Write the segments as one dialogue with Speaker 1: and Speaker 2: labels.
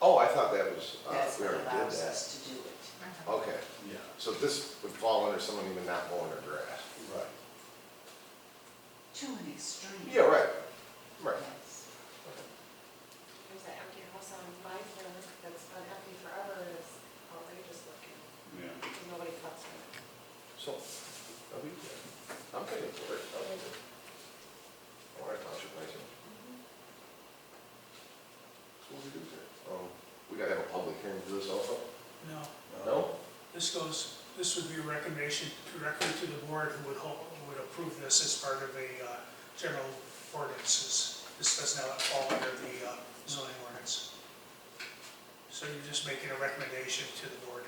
Speaker 1: Oh, I thought that was, uh,
Speaker 2: That's
Speaker 1: we
Speaker 2: what
Speaker 1: already did
Speaker 2: allows
Speaker 1: that.
Speaker 2: us to do it.
Speaker 1: Okay,
Speaker 3: Yeah,
Speaker 1: so this would fall under someone even not mowing their grass.
Speaker 3: right.
Speaker 2: To an extreme.
Speaker 1: Yeah, right, right.
Speaker 2: Yes.
Speaker 4: There's that empty house on my corner that's been empty forever and it's outrageous looking.
Speaker 3: Yeah.
Speaker 4: Nobody cuts it.
Speaker 1: So, are we, I'm getting bored. All right, township license. So what do we do here? Um, we gotta have a public hearing for this also?
Speaker 5: No,
Speaker 1: No?
Speaker 5: this goes, this would be a recommendation directly to the board who would hope, who would approve this as part of a uh, general ordinances. This does not fall under the uh, zoning ordinance. So you're just making a recommendation to the board.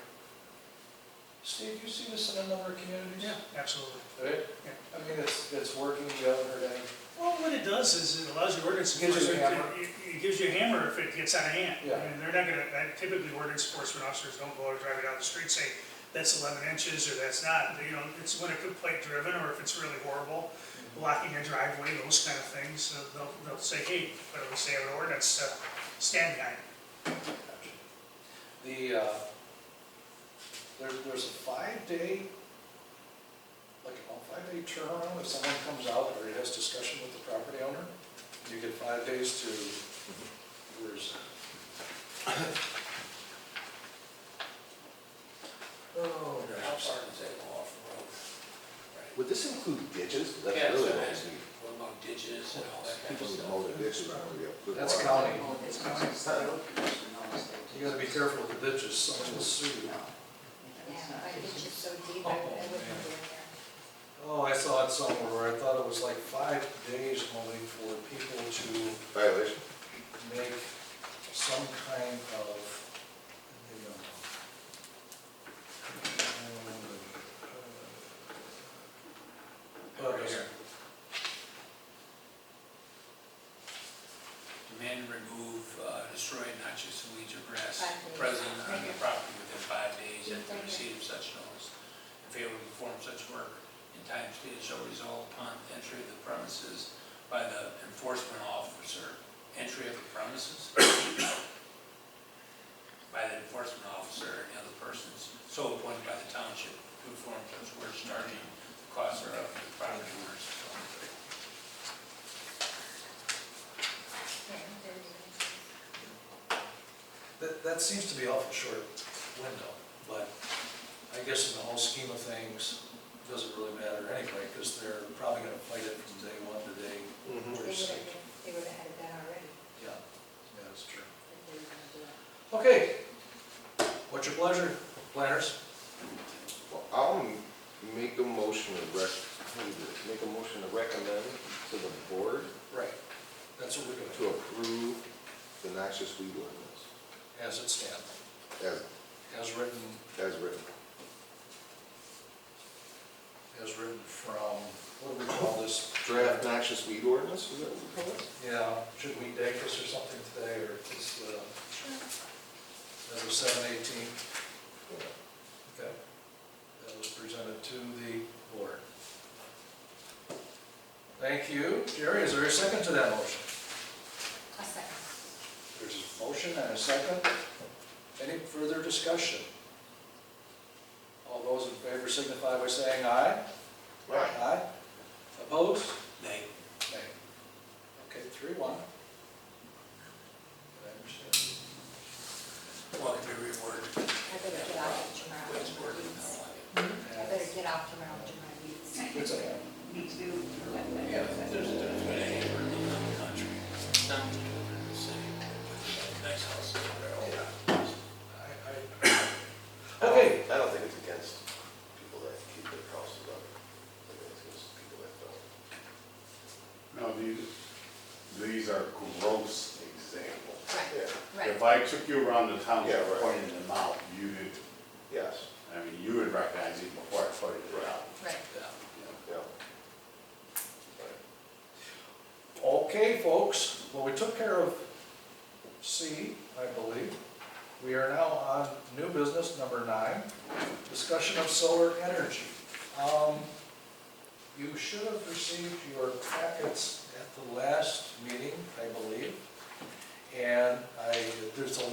Speaker 3: Steve, you see this in a number of communities?
Speaker 5: Absolutely.
Speaker 3: Right?
Speaker 5: Yeah.
Speaker 3: I mean, it's, it's working, you haven't heard any,
Speaker 5: Well, what it does is it allows your ordinance
Speaker 3: Gives you a
Speaker 5: enforcement,
Speaker 3: hammer.
Speaker 5: to- it it gives you a hammer if it gets out of hand.
Speaker 3: Yeah.
Speaker 5: And they're not gonna, and typically ordinance enforcement officers don't go out driving down the street saying, that's 11 inches or that's not. You know, it's when it could plate driven or if it's really horrible, blocking a driveway, those kind of things, uh, they'll, they'll say, hey, but at least they have an ordinance to stand behind.
Speaker 3: the, uh, there, there's a five-day, like a five-day turnaround, if someone comes out or has discussion with the property owner, you get five days to, where's?
Speaker 1: Oh,
Speaker 6: How far does that go off the road? Right.
Speaker 1: Would this include ditches? That's
Speaker 6: Yeah,
Speaker 1: really
Speaker 6: so
Speaker 1: what
Speaker 6: that's-
Speaker 1: we need.
Speaker 6: What about ditches and all that kind
Speaker 1: People
Speaker 6: of
Speaker 1: need to
Speaker 6: stuff?
Speaker 1: mow their ditches. and we have good
Speaker 3: That's
Speaker 1: water.
Speaker 3: county.
Speaker 2: Oh, it's not just the road commission knows they
Speaker 3: You gotta be
Speaker 2: do.
Speaker 3: careful with the ditches, someone will sue you.
Speaker 2: No. It's
Speaker 4: Yeah,
Speaker 2: not
Speaker 4: my ditch
Speaker 2: just-
Speaker 4: is so deep,
Speaker 3: I- I
Speaker 4: I
Speaker 3: wouldn't
Speaker 4: wouldn't
Speaker 3: go
Speaker 4: go in there.
Speaker 3: Oh, I saw it somewhere where I thought it was like five days only for people to
Speaker 1: Violation?
Speaker 3: make some kind of, you know. um, uh,
Speaker 6: Right here. Men remove, uh, destroy noxious weeds or grass
Speaker 4: Five days.
Speaker 6: present on the
Speaker 4: Right.
Speaker 6: property within five days
Speaker 4: Yeah,
Speaker 6: after
Speaker 4: right.
Speaker 6: receipt of such notice. and fail to perform such work in time stated shall result upon entry of the premises by the enforcement officer. Entry of the premises? By the enforcement officer and the other persons so appointed by the township to perform such work charging the cost thereof to the property owners.
Speaker 3: That, that seems to be awful short window, but I guess in the whole scheme of things, doesn't really matter anyway, because they're probably gonna fight it from day one to day.
Speaker 1: Mm-hmm.
Speaker 4: They would
Speaker 3: where it's-
Speaker 4: have, they would have had that already
Speaker 3: Yeah, yeah, that's true.
Speaker 4: if they were gonna do it.
Speaker 3: Okay, what's your pleasure, planners?
Speaker 1: Well, I'll make a motion to rec, how do you do it? make a motion to recommend to the board
Speaker 3: Right. That's what we're gonna
Speaker 1: to
Speaker 3: do,
Speaker 1: approve the noxious weed ordinance
Speaker 3: as it stands,
Speaker 1: as,
Speaker 3: as written,
Speaker 1: as written.
Speaker 3: as written from, what do we call this?
Speaker 1: Draft noxious weed ordinance, is that what we call it?
Speaker 3: Yeah, should we date this or something today, or just, uh, as of seven eighteen?
Speaker 1: Yeah.
Speaker 3: Okay. That was presented to the board. Thank you. Jerry, is there a second to that motion?
Speaker 4: A second.
Speaker 3: There's a motion and a second. Any further discussion? All those in favor signify by saying aye.
Speaker 1: Right.
Speaker 3: Aye. Opposed?
Speaker 6: They
Speaker 3: Nay. Okay, three, one. Did I understand?
Speaker 6: Well, if you reword,
Speaker 4: I better get off of Jamar.
Speaker 6: which word do you
Speaker 4: I
Speaker 6: don't like it?
Speaker 4: better get off Jamar, Jamar weeds.
Speaker 3: It's okay.
Speaker 6: Yeah, there's, there's been any word in the country. Some do it in the city, but nice houses, they're all around.
Speaker 3: I- I- Okay,
Speaker 1: Um, I don't think it's against people that keep their houses up. I think it's against people that don't.
Speaker 7: No, these, these are gross examples.
Speaker 4: Right,
Speaker 1: Yeah,
Speaker 4: right.
Speaker 7: If I took you around the town
Speaker 1: Yeah, right.
Speaker 7: pointing them out, you would,
Speaker 1: yes,
Speaker 7: I mean, you would recognize it before I pointed it out.
Speaker 4: Right.
Speaker 3: yeah.
Speaker 1: yeah.
Speaker 3: Okay, folks, well, we took care of C, I believe. We are now on new business number nine, discussion of solar energy. Um, You should have received your packets at the last meeting, I believe. And I, there's a